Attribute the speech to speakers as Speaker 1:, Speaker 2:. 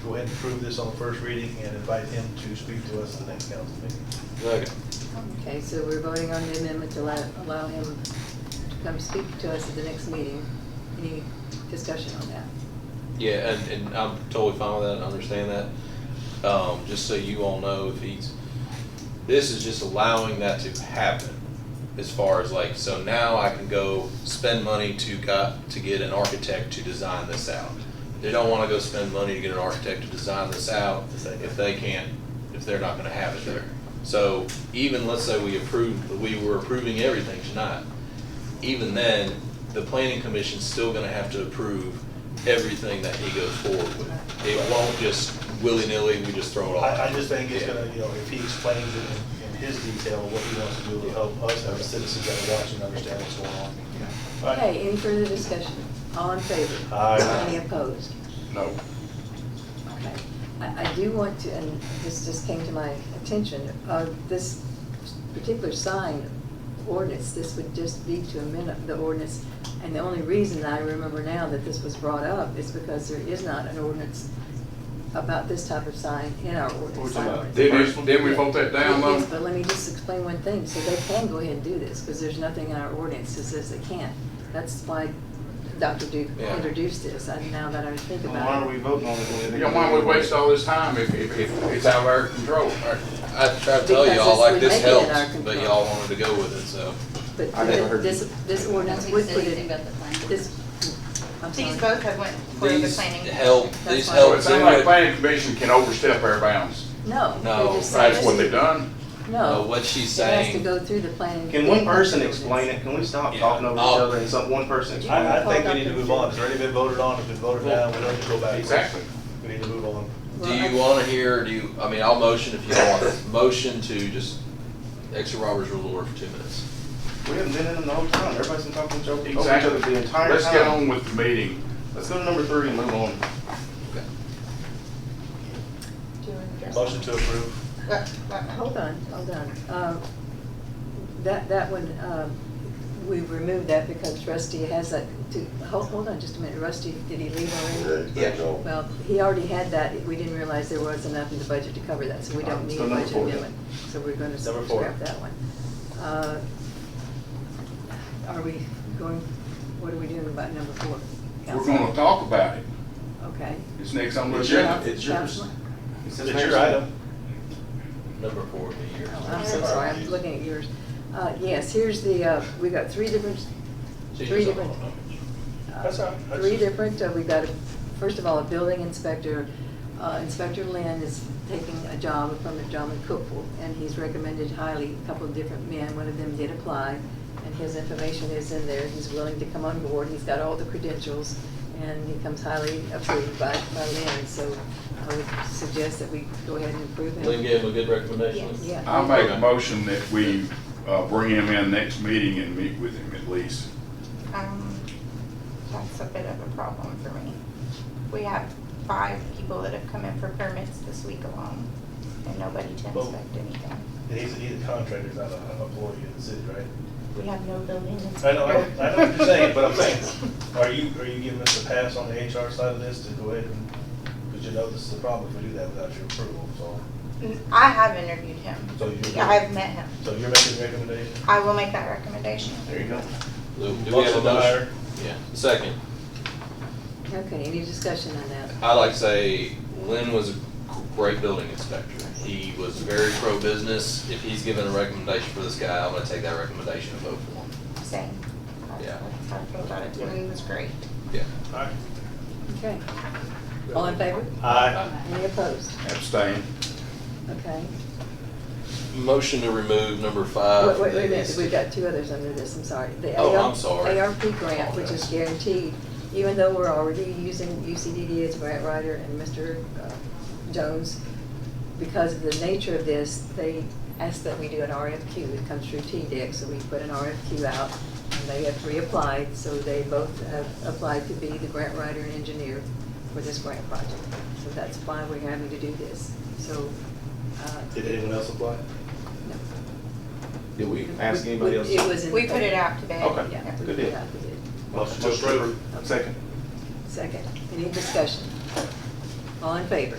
Speaker 1: go ahead and approve this on first reading and invite him to speak to us at the next council meeting.
Speaker 2: Second.
Speaker 3: Okay, so we're voting on the amendment to allow, allow him to come speak to us at the next meeting. Any discussion on that?
Speaker 2: Yeah, and, and I'm totally fine with that, I understand that. Um, just so you all know, if he's, this is just allowing that to happen as far as like, so now I can go spend money to got, to get an architect to design this out. They don't wanna go spend money to get an architect to design this out if they can't, if they're not gonna have it there. So even, let's say we approved, we were approving everything tonight, even then, the planning commission's still gonna have to approve everything that he goes forward with. It won't just willy-nilly, we just throw it all out.
Speaker 1: I, I just think it's
Speaker 2: Yeah.
Speaker 1: gonna, you know, if he explains it in, in his detail, what he wants to do, it'll help us, our citizens that are watching, understand what's going on. All right.
Speaker 3: Okay, any further discussion? All in favor?
Speaker 1: Aye.
Speaker 3: Any opposed?
Speaker 4: No.
Speaker 3: Okay. I, I do want to, and this just came to my attention, uh, this particular sign ordinance, this would just be to amend the ordinance. And the only reason I remember now that this was brought up is because there is not an ordinance about this type of sign in our ordinance. sign ordinance.
Speaker 4: Didn't, didn't we vote that down
Speaker 3: Yes,
Speaker 4: though?
Speaker 3: but let me just explain one thing. So they can go ahead and do this, because there's nothing in our ordinance that says they can't. That's why Dr. Duke
Speaker 2: Yeah.
Speaker 3: introduced this, and now that I think
Speaker 5: Well, Why
Speaker 3: about
Speaker 5: are we
Speaker 3: it.
Speaker 5: voting on it?
Speaker 4: You know, why would we waste all this time if, if, if it's out of our control?
Speaker 2: I tried to tell
Speaker 3: Because
Speaker 2: y'all, like,
Speaker 3: this
Speaker 2: this helps,
Speaker 3: would make it in our
Speaker 2: but
Speaker 3: control.
Speaker 2: y'all wanted to go with it, so.
Speaker 3: But
Speaker 6: I never heard
Speaker 3: this, this ordinance would put it, this, I'm sorry.
Speaker 7: These both have went for the
Speaker 2: These
Speaker 7: planning.
Speaker 2: help,
Speaker 7: commission.
Speaker 2: these
Speaker 7: That's why-
Speaker 4: So
Speaker 2: help
Speaker 4: it
Speaker 2: do
Speaker 4: sounds like
Speaker 2: it.
Speaker 4: planning commission can overstep our bounds.
Speaker 3: No.
Speaker 2: No,
Speaker 6: Oh,
Speaker 3: they just said
Speaker 4: That's what they done.
Speaker 3: No.
Speaker 2: No, what she's
Speaker 3: It has to
Speaker 2: saying-
Speaker 3: go through the planning.
Speaker 6: Can one person explain it? Can we stop
Speaker 2: Yeah.
Speaker 6: talking over each
Speaker 2: Oh.
Speaker 6: other and some, one person explain it?
Speaker 1: I, I think we need to move on, it's already been voted on, it's been voted down, we don't need to go back.
Speaker 4: Exactly.
Speaker 1: We need to move on.
Speaker 2: Do you wanna hear, do you, I mean, I'll motion if you want, it. motion to just, extra Robert's rule of order for two minutes.
Speaker 6: We haven't been in them the whole time. Everybody's been talking to over each other
Speaker 4: Exactly.
Speaker 6: the entire time.
Speaker 4: Let's get on with the meeting.
Speaker 6: Let's go to number three and move on.
Speaker 2: Okay.
Speaker 7: Do you want to address-
Speaker 1: Motion to approve.
Speaker 7: What- what-
Speaker 3: Hold on, hold on. Uh, That, that one, uh, we removed that because Rusty has that, to, hold, hold on just a minute. Rusty, did he leave already? Well, he already had that. We didn't realize there was enough in the budget to cover that, so we
Speaker 6: All
Speaker 3: don't
Speaker 6: right,
Speaker 3: need
Speaker 6: so
Speaker 3: a
Speaker 6: number
Speaker 3: budget
Speaker 6: four then.
Speaker 3: amendment. So we're gonna
Speaker 1: Number four.
Speaker 3: scrap that one. Uh, Are we going, what are we doing about number four?
Speaker 4: We're
Speaker 3: Councilman?
Speaker 4: gonna talk about it.
Speaker 3: Okay.
Speaker 4: It's next on the
Speaker 6: It's your-
Speaker 4: agenda.
Speaker 6: it's yours.
Speaker 3: Councilman?
Speaker 6: It's
Speaker 1: It's your item.
Speaker 2: Number four would be yours.
Speaker 3: Oh, I'm so sorry, I'm looking at yours. Uh, Yes, here's the, uh, we got three different,
Speaker 2: She
Speaker 3: three
Speaker 2: just-
Speaker 3: different. uh,
Speaker 1: That's all right. That's
Speaker 3: Three
Speaker 1: just-
Speaker 3: different, uh, we've got, a- first of all, a building inspector. Uh, Inspector Lynn is taking a job, from a job in Cookville, and he's recommended highly a couple of different men. One of them did apply, and his information is in there. He's willing to come on board, he's got all the credentials, and he comes highly approved by, by Lynn. So I would suggest that we go ahead and approve him.
Speaker 2: Lynn gave him a good recommendation.
Speaker 7: Yes.
Speaker 3: Yeah.
Speaker 4: I'll make a motion that we, uh, bring him in next meeting and meet with him at least.
Speaker 7: Um, That's a bit of a problem for me. We have five people that have come in for permits this week alone, and nobody to
Speaker 1: Well-
Speaker 7: inspect anything.
Speaker 1: And he's, he's a contractor, he's not an employee of the city, right?
Speaker 7: We have no building inspector.
Speaker 1: I know, I know I know what you're saying, but I'm saying, are you, are you giving us a pass on the HR side of this to go ahead and, because you know this is a problem if we do that without your approval, so,
Speaker 7: I have interviewed him.
Speaker 1: So you-
Speaker 7: I've met him.
Speaker 1: so you're making a recommendation?
Speaker 7: I will make that recommendation.
Speaker 6: There you go.
Speaker 2: Do do we have a
Speaker 1: Motion to
Speaker 2: motion?
Speaker 1: hire.
Speaker 2: Yeah, second.
Speaker 3: Okay, any discussion on that?
Speaker 2: I like to say Lynn was a great building inspector. He was very pro-business. If he's given a recommendation for this guy, I'm gonna take that recommendation and vote for him.
Speaker 7: Same.
Speaker 2: Yeah.
Speaker 7: That's how I feel about it. I mean, it was great.
Speaker 2: Yeah.
Speaker 1: All right.
Speaker 3: Okay. All in favor?
Speaker 1: Aye.
Speaker 3: Any opposed?
Speaker 4: Abstain.
Speaker 3: Okay.
Speaker 2: Motion to remove number five.
Speaker 3: Wait,
Speaker 2: from
Speaker 3: wait,
Speaker 2: the
Speaker 3: wait a minute,
Speaker 2: list.
Speaker 3: we've got two others under this, I'm sorry. The
Speaker 2: Oh,
Speaker 3: AR
Speaker 2: I'm sorry.
Speaker 3: ARP grant, which is guaranteed, even though we're already using UCDD as grant writer and Mr. uh, Jones, because of the nature of this, they asked that we do an RFQ, it comes through TDEC, so we put an RFQ out, and they have three applied, so they both have applied to be the grant writer and engineer for this grant project. So that's why we're having to do this, so. uh,
Speaker 1: Did anyone else apply?
Speaker 3: no.
Speaker 6: Did we ask
Speaker 3: Would-
Speaker 6: anybody
Speaker 3: would-
Speaker 6: else?
Speaker 3: It was in.
Speaker 7: We put it out today.
Speaker 6: Okay.
Speaker 3: Yeah.
Speaker 7: Yeah.
Speaker 3: we
Speaker 6: Good
Speaker 3: put it
Speaker 6: deal.
Speaker 3: out, we did.
Speaker 6: Motion to approve. Second.
Speaker 3: Second, any discussion? All in favor?